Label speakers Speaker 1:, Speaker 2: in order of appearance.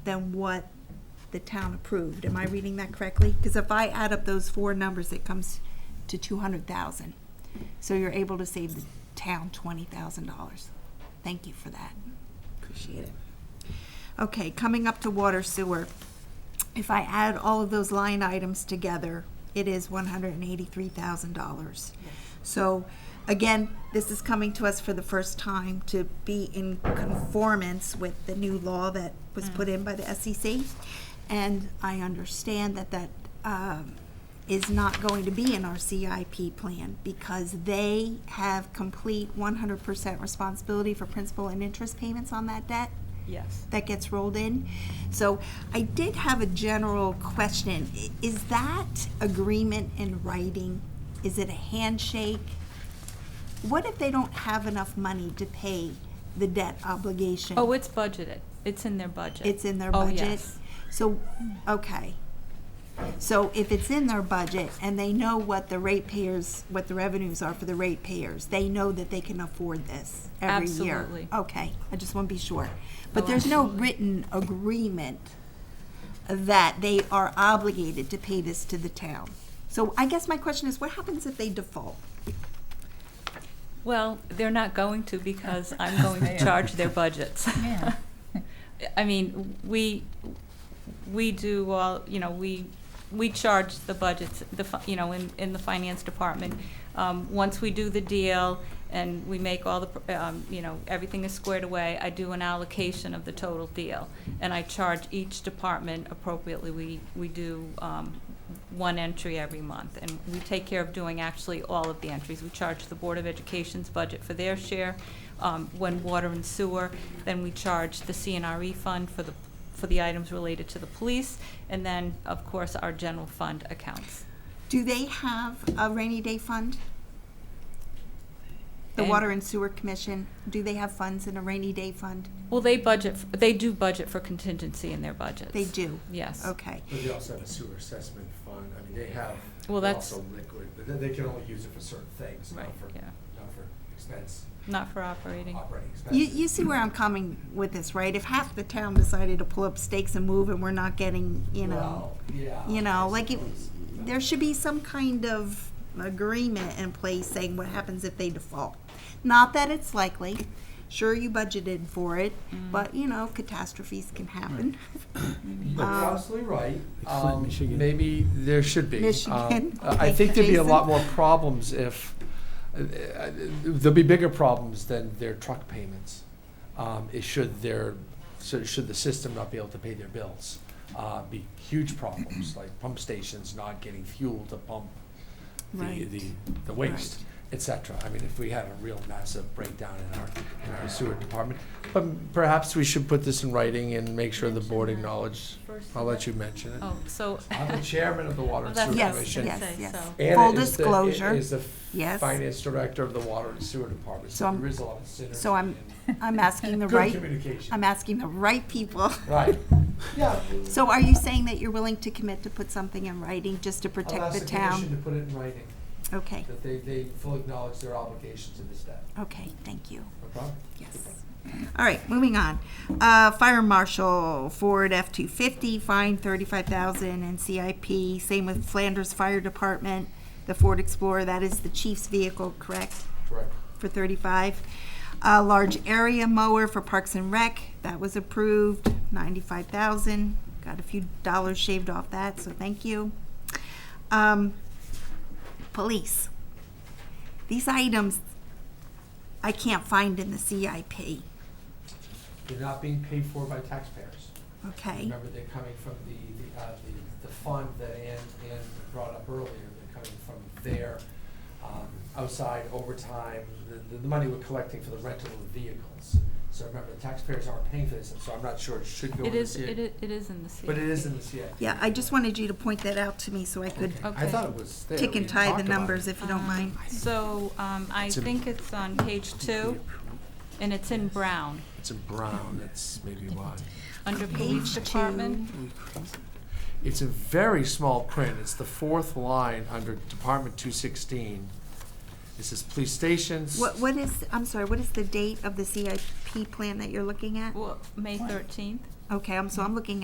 Speaker 1: than what the town approved. Am I reading that correctly? Because if I add up those four numbers, it comes to two hundred thousand. So you're able to save the town twenty thousand dollars. Thank you for that. Appreciate it. Okay, coming up to water sewer. If I add all of those line items together, it is one hundred and eighty-three thousand dollars. So, again, this is coming to us for the first time to be in conformance with the new law that was put in by the SEC. And I understand that that um, is not going to be in our CIP plan because they have complete one hundred percent responsibility for principal and interest payments on that debt
Speaker 2: Yes.
Speaker 1: that gets rolled in. So I did have a general question. I- Is that agreement in writing? Is it a handshake? What if they don't have enough money to pay the debt obligation?
Speaker 2: Oh, it's budgeted. It's in their budget.
Speaker 1: It's in their
Speaker 2: Oh,
Speaker 1: budget?
Speaker 2: yes.
Speaker 1: So, okay. So if it's in their budget and they know what the ratepayers, what the revenues are for the ratepayers, they know that they can afford this every year?
Speaker 2: Absolutely.
Speaker 1: Okay, I just want to be sure. But
Speaker 2: Oh,
Speaker 1: there's no
Speaker 2: absolutely.
Speaker 1: written agreement that they are obligated to pay this to the town? So I guess my question is, what happens if they default?
Speaker 2: Well, they're not going to because I'm going to charge their budgets.
Speaker 3: Yeah.
Speaker 2: I mean, we, we do all, you know, we, we charge the budgets, the, fi- you know, in, in the finance department. Um, once we do the deal and we make all the, pr- um, you know, everything is squared away, I do an allocation of the total deal. And I charge each department appropriately. We, we do, um, one entry every month. And we take care of doing actually all of the entries. We charge the Board of Education's budget for their share. Um, when water and sewer, then we charge the CNRE E fund for the, for the items related to the police, and then, of course, our general fund accounts.
Speaker 1: Do they have a rainy day fund? The
Speaker 2: And-
Speaker 1: Water and Sewer Commission, do they have funds in a rainy day fund?
Speaker 2: Well, they budget, f- they do budget for contingency in their budgets.
Speaker 1: They do,
Speaker 2: Yes.
Speaker 1: okay.
Speaker 4: But they also have a sewer assessment fund, I mean, they have,
Speaker 2: Well,
Speaker 4: they're
Speaker 2: that's-
Speaker 4: also liquid, but they- they can only use it for certain things,
Speaker 2: Right,
Speaker 4: not for,
Speaker 2: yeah.
Speaker 4: not for expense,
Speaker 2: Not for operating.
Speaker 4: operating expenses.
Speaker 1: You, you see where I'm coming with this, right? If half the town decided to pull up stakes and move and we're not getting, you know,
Speaker 4: Well, yeah,
Speaker 1: you know,
Speaker 4: I
Speaker 1: like it,
Speaker 4: suppose.
Speaker 1: there should be some kind of agreement in place saying what happens if they default. Not that it's likely. Sure, you budgeted for it, but you know, catastrophes can happen.
Speaker 4: You're
Speaker 1: Um,
Speaker 4: absolutely right.
Speaker 5: It's not
Speaker 4: Um,
Speaker 5: Michigan.
Speaker 4: Maybe there should be. Um,
Speaker 1: Michigan.
Speaker 4: I I
Speaker 1: Okay,
Speaker 4: think there'd be a lot
Speaker 1: Jason.
Speaker 4: more problems if, uh, uh, there'll be bigger problems than their truck payments. Um, It should their, so should the system not be able to pay their bills? Uh, Be huge problems, like pump stations not getting fuel to pump the,
Speaker 1: Right.
Speaker 4: the, the waste, et cetera. I mean, if we had a real massive breakdown in our, in our sewer department. But perhaps we should put this in writing and make sure the board
Speaker 2: Mention that
Speaker 4: acknowledges
Speaker 2: First
Speaker 4: I'll let you mention it.
Speaker 2: Oh, so.
Speaker 4: I'm the chairman of the Water
Speaker 2: Well, that's
Speaker 4: and Sewer
Speaker 2: what
Speaker 1: Yes,
Speaker 2: I was
Speaker 4: Commission.
Speaker 2: gonna
Speaker 1: yes,
Speaker 2: say,
Speaker 1: yes.
Speaker 2: so.
Speaker 4: and
Speaker 1: Full
Speaker 4: it is the- it
Speaker 1: disclosure.
Speaker 4: is the f-
Speaker 1: Yes.
Speaker 4: finance director of the Water and Sewer Department,
Speaker 1: So
Speaker 4: so
Speaker 1: I'm-
Speaker 4: there is a lot of synergy.
Speaker 1: so I'm-
Speaker 4: and
Speaker 1: I'm asking the
Speaker 4: Good
Speaker 1: right,
Speaker 4: communication,
Speaker 1: I'm asking the right people.
Speaker 4: right. Yeah.
Speaker 1: So are you saying that you're willing to commit to put something in writing just to protect the
Speaker 4: I'll ask the commission
Speaker 1: town?
Speaker 4: to put it in writing,
Speaker 1: Okay,
Speaker 4: that they, they fully acknowledge their obligation to this debt.
Speaker 1: okay, thank you.
Speaker 4: No problem?
Speaker 1: Yes. All right, moving on. Uh, Fire Marshal, Ford F-250, fine 35000 and CIP. Same with Flanders Fire Department, the Ford Explorer, that is the chief's vehicle, correct?
Speaker 4: Correct.
Speaker 1: for 35. A large area mower for Parks and Rec, that was approved, 95,000. Got a few dollars shaved off that, so thank you. Um, Police. These items I can't find in the CIP,
Speaker 4: They're not being paid for by taxpayers.
Speaker 1: okay?
Speaker 4: Remember, they're coming from the, the, uh, the, the fund that Ann, Ann brought up earlier, they're coming from their, um, outside overtime, the, the money we're collecting for the rental of vehicles. So remember, the taxpayers aren't paying for this, and so I'm not sure it should go in
Speaker 2: It
Speaker 4: the
Speaker 2: is,
Speaker 4: CIP.
Speaker 2: it is, it is in the CIP.
Speaker 4: But it is in the CIP.
Speaker 1: Yeah, I just wanted you to point that out to me so I could
Speaker 4: I thought it was there.
Speaker 1: tick
Speaker 4: We
Speaker 1: and tie
Speaker 4: talked
Speaker 1: the
Speaker 4: about it.
Speaker 1: numbers if you don't
Speaker 2: Um,
Speaker 1: mind.
Speaker 2: So, um, I
Speaker 5: It's in-
Speaker 2: think it's on page two, and it's in brown,
Speaker 5: It's a brown, that's maybe why.
Speaker 2: under
Speaker 1: Page
Speaker 2: police
Speaker 1: two.
Speaker 2: department.
Speaker 4: It's a very small print, it's the fourth line under Department two sixteen. It says police stations.
Speaker 1: What, what is, I'm sorry, what is the date of the CIP plan that you're looking at?
Speaker 2: Well, May
Speaker 3: What?
Speaker 2: thirteenth?
Speaker 1: Okay, I'm, so I'm looking